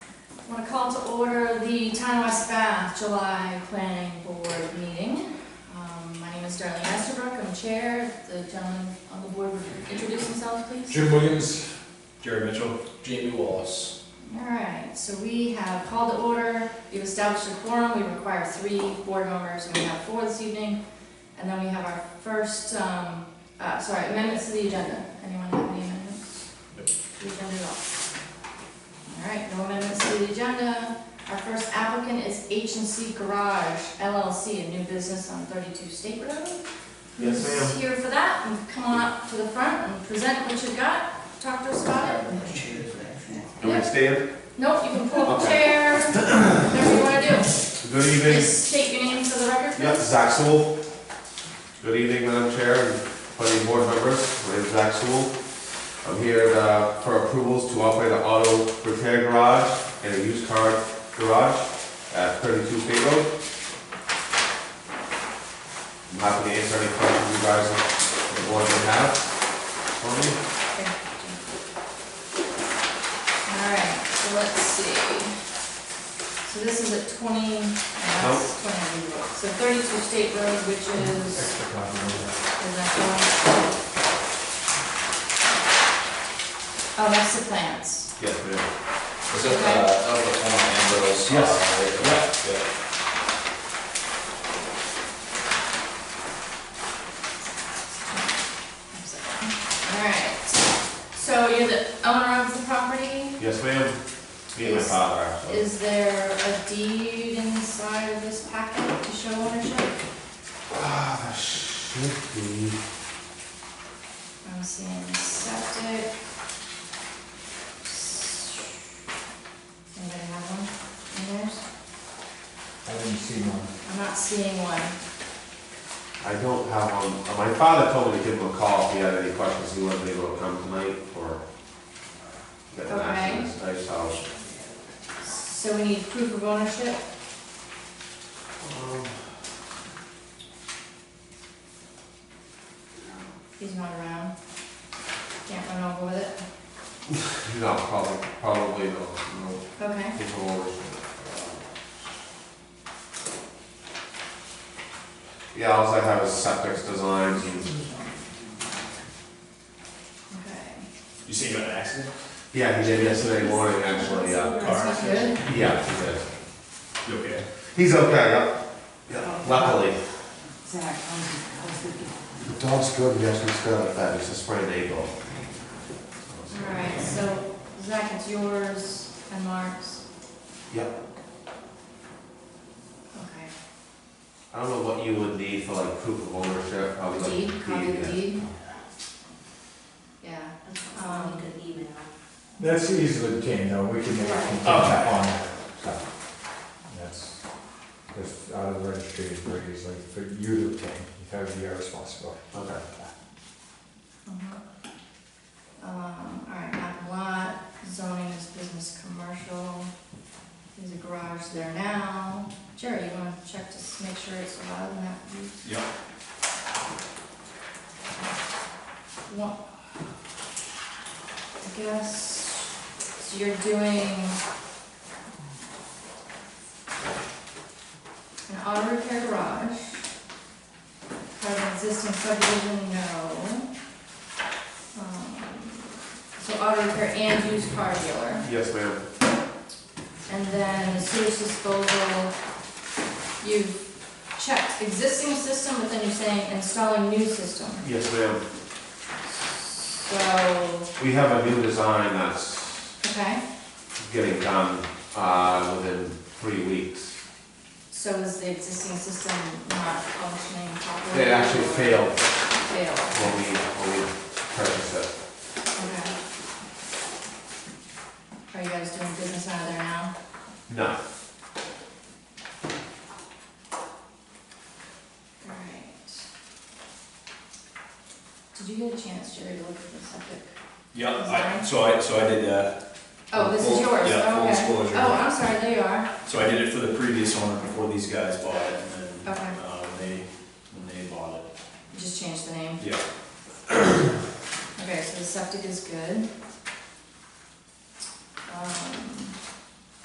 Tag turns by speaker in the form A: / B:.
A: Want to call to order the Town of West Bath July Planning Board meeting. Um, My name is Darlene Estabrook, I'm chair. The gentleman on the board would introduce himself, please.
B: Jim Williams,
C: Jerry Mitchell.
B: Jamie Wallace.
A: All right, so we have called to order, we've established a quorum, we require three board members, and we have four this evening. And then we have our first, um, uh, sorry, amendments to the agenda. Anyone have any amendments?
C: Nope.
A: We've done it all. All right, no amendments to the agenda. Our first applicant is H and C Garage LLC, a new business on thirty-two State Road.
C: Yes, ma'am.
A: Who's Here for that, and come on up to the front and present what you've got, talk to us about it.
D: Do we stand?
A: Nope, you can pull up a chair, whatever you wanna do.
D: Good evening.
A: Just state your name for the record.
D: Yep, Zach Sewell. Good evening, Madam Chair and plenty board members. My name's Zach Sewell. I'm here uh, for approvals to operate an auto repair garage and a used car garage at 32 State Road. I'm happy to answer any questions you guys on the board may have for me.
A: Alright, so let's see. So this is at twenty, uh, that's twenty, so thirty-two State Road, which is,
C: Extra copy of
A: is that the one? Oh, that's the plans.
D: Yes, ma'am.
E: Is that, uh, that was the former Ambrose? uh,
D: Yes.
E: right? Yeah.
A: Alright, so you're the owner of the property?
D: Yes, ma'am. Me and my
A: Is-
D: father, actually.
A: Is there a deed inside of this packet to show ownership?
D: Ah, that should be.
A: I'm seeing septic. Anybody have one in theirs?
C: I didn't see one.
A: I'm not seeing one.
D: I don't have one, uh, my father told me to give him a call if he had any questions, he wasn't able to come tonight or get an
A: Okay.
D: answer tonight, so.
A: So we need proof of ownership?
D: um,
A: He's not around. Can't run over with it.
D: No, probably, probably no, no,
A: Okay.
D: he's a little- Yeah, all I have is septic designs and,
A: Okay.
C: You say you got an accident?
D: yeah, he did yesterday morning, actually, yeah.
C: uh,
A: That's not good.
D: Yeah, he did.
C: You okay?
D: He's okay, yeah, yeah, luckily.
F: Zach, I was thinking,
D: The dog's good, yes, he's good like that, he's a sprained ankle.
A: Alright, so Zach, it's yours and Mark's.
D: Yep,
A: Okay.
D: I don't know what you would need for like proof of ownership, probably like.
A: Deed, copy of the
D: yeah.
A: deed? Yeah.
F: um, good email.
C: That's easily obtained, though, we can make a
E: Oh.
C: contact on that, so. That's, that's out of the registry, it's very easily, for you to obtain, that would be our responsibility.
D: Okay.
A: Mhm. Um, all right, map and lot, zoning is business commercial, there's a garage there now. Jerry, you wanna check to s- make sure it's allowed in that?
C: Yep.
A: What? I guess, so you're doing an auto repair garage, part of an existing subdivision, no. Um, So auto repair and used car dealer,
D: Yes, ma'am.
A: and then sewage disposal, you checked existing system, but then you're saying installing new system.
D: Yes, ma'am.
A: So,
D: We have a new design that's
A: okay,
D: getting done, uh, within three weeks.
A: so is the existing system not functioning properly?
D: It actually failed
A: Failed,
D: when we, when we purchased it.
A: okay. Are you guys doing business out of there now?
D: No.
A: Alright. Did you get a chance, Jerry, to look at the septic?
E: Yeah, I, so I, so I did, uh,
A: Oh, this is
E: Full-
A: yours, okay.
E: yeah, full disclosure.
A: Oh, I'm sorry, there you are.
E: so I did it for the previous owner before these guys bought it, and then,
A: Okay.
E: uh, when they, when they bought it.
A: You Just changed the name.
E: Yeah.
A: Okay, so the septic is good. Um,